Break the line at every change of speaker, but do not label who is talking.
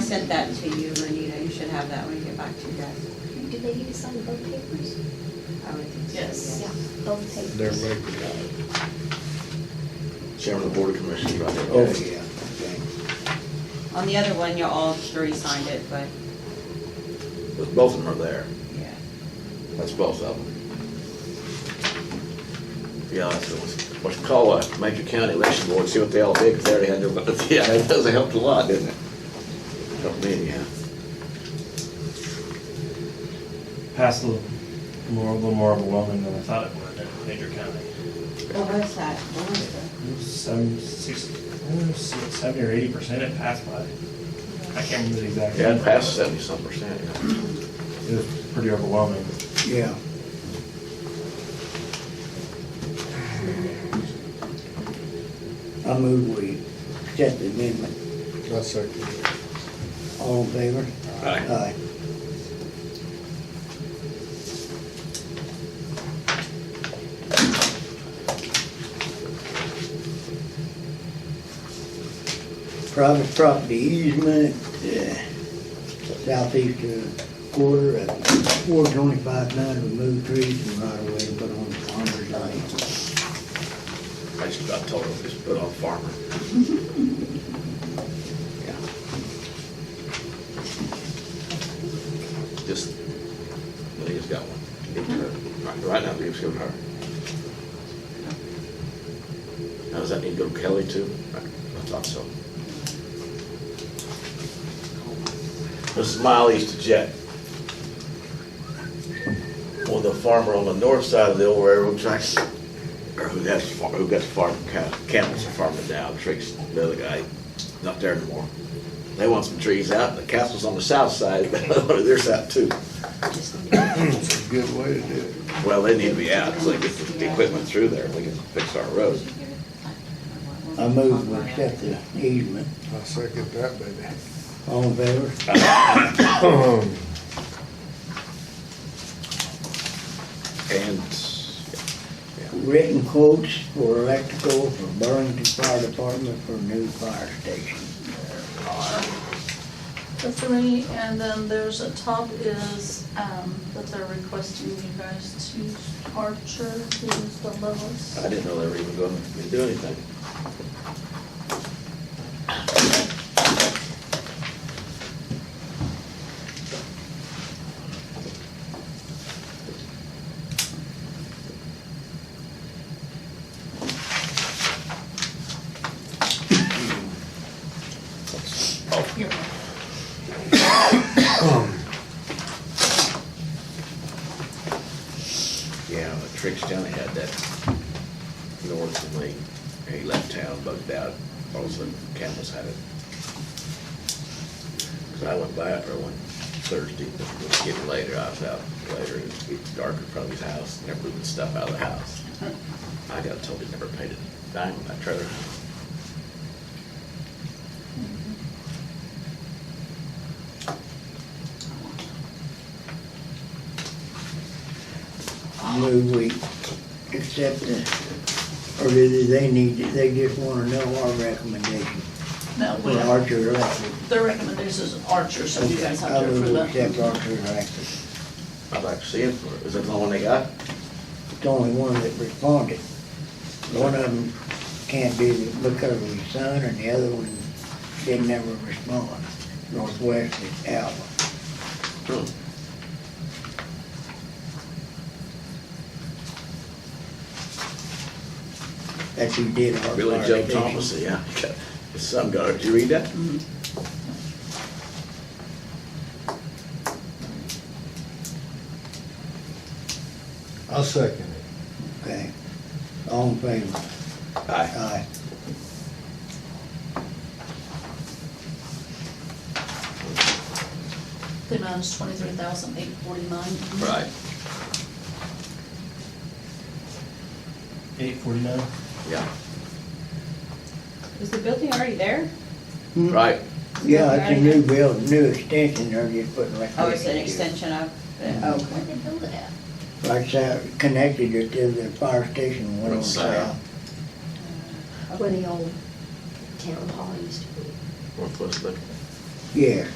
sent that to you, Renita, you should have that when you get back to your desk.
Do they need to sign both papers?
I would think so.
Yes.
Yeah, both papers.
They're like-
Chairman of the Board of Commissioners right there.
Oh.
yeah. okay.
On the other one, you all three signed it, but,
But Both of them are there.
yeah.
That's both of them. Yeah, that's what, what you call a major county election board, see what they all did, 'cause they already had their votes. Yeah, that does, it helped a lot, didn't it? Helped me, yeah.
Passed a little more, a little more overwhelming than I thought it would in Major County.
What was that? What was it?
Some six, oh, six- seventy or eighty percent it passed by. I can't remember the exact.
Yeah, it
number.
passed seventy-some percent, yeah.
It was pretty overwhelming.
Yeah.
I move we accept the amendment.
I second.
All in favor? Aye. Private property easement, uh, southeastern quarter of four twenty-five nine, remove trees from right away and put on farmer's lane.
I just, I told them, just put on farmer. Yeah. Just, I think it's got one. Give it to her. Right- Right now, give it to her. Now, does that need to go to Kelly too? I thought so. This is mile east of Jet. Well, the farmer on the north side of the old railroad tracks, or who has, far- who got the farm, ca- camel's a farmer now, Tricks, the other guy, not there anymore. They want some trees out, the castle's on the south side, but there's out too.
It's a good way to do it.
Well, they need to be out, so they get the equipment through there, we can fix our road.
I move we accept the easement.
I second that, baby.
All in favor?
And,
Written quotes for electrical for Burlington Fire Department for new fire station.
The three, and then there's a top is, um, that they're requesting you guys to Archer, who's the lowest.
I didn't know they were even gonna do anything.
You're welcome.
Yeah, but Tricks County had that north of me, he left town, bugged out, all of a sudden Campbell's had it. Cause I went by after one Thursday, it was getting later, I was out later, it was dark in front of his house, never moving stuff out of the house. I got told he never paid a dime on that trailer.
Move we accept the, or do they need, to- they just wanna know our recommendation
No, we
for
don't.
Archer Electric.
The recommendation is Archer, so you guys have
I
to
move
approve
we
that.
accept Archer Electric.
I'd like to see it, for- is that the one they got?
It's only one that responded. One of them can't do it because of his son, and the other one didn't ever respond. Northwest is out.
Hmm.
That's who did our fire
Billy Joe
station.
Thomas, yeah, his son got it, did you read that?
I second it.
Okay. All in favor?
Aye.
Aye.
The amount is twenty-three thousand eight forty-nine.
Right,
Eight forty-nine?
yeah,
Is the building already there? Hmm.
right.
Yeah, it's a new build, new extension, they're just putting right
Oh, it's an extension of, oh,
Where'd they build it at?
Like south, connected it to the fire station, one on
What's that?
south.
Where the old town hall used to be.
Northwest Liquor.
Yeah,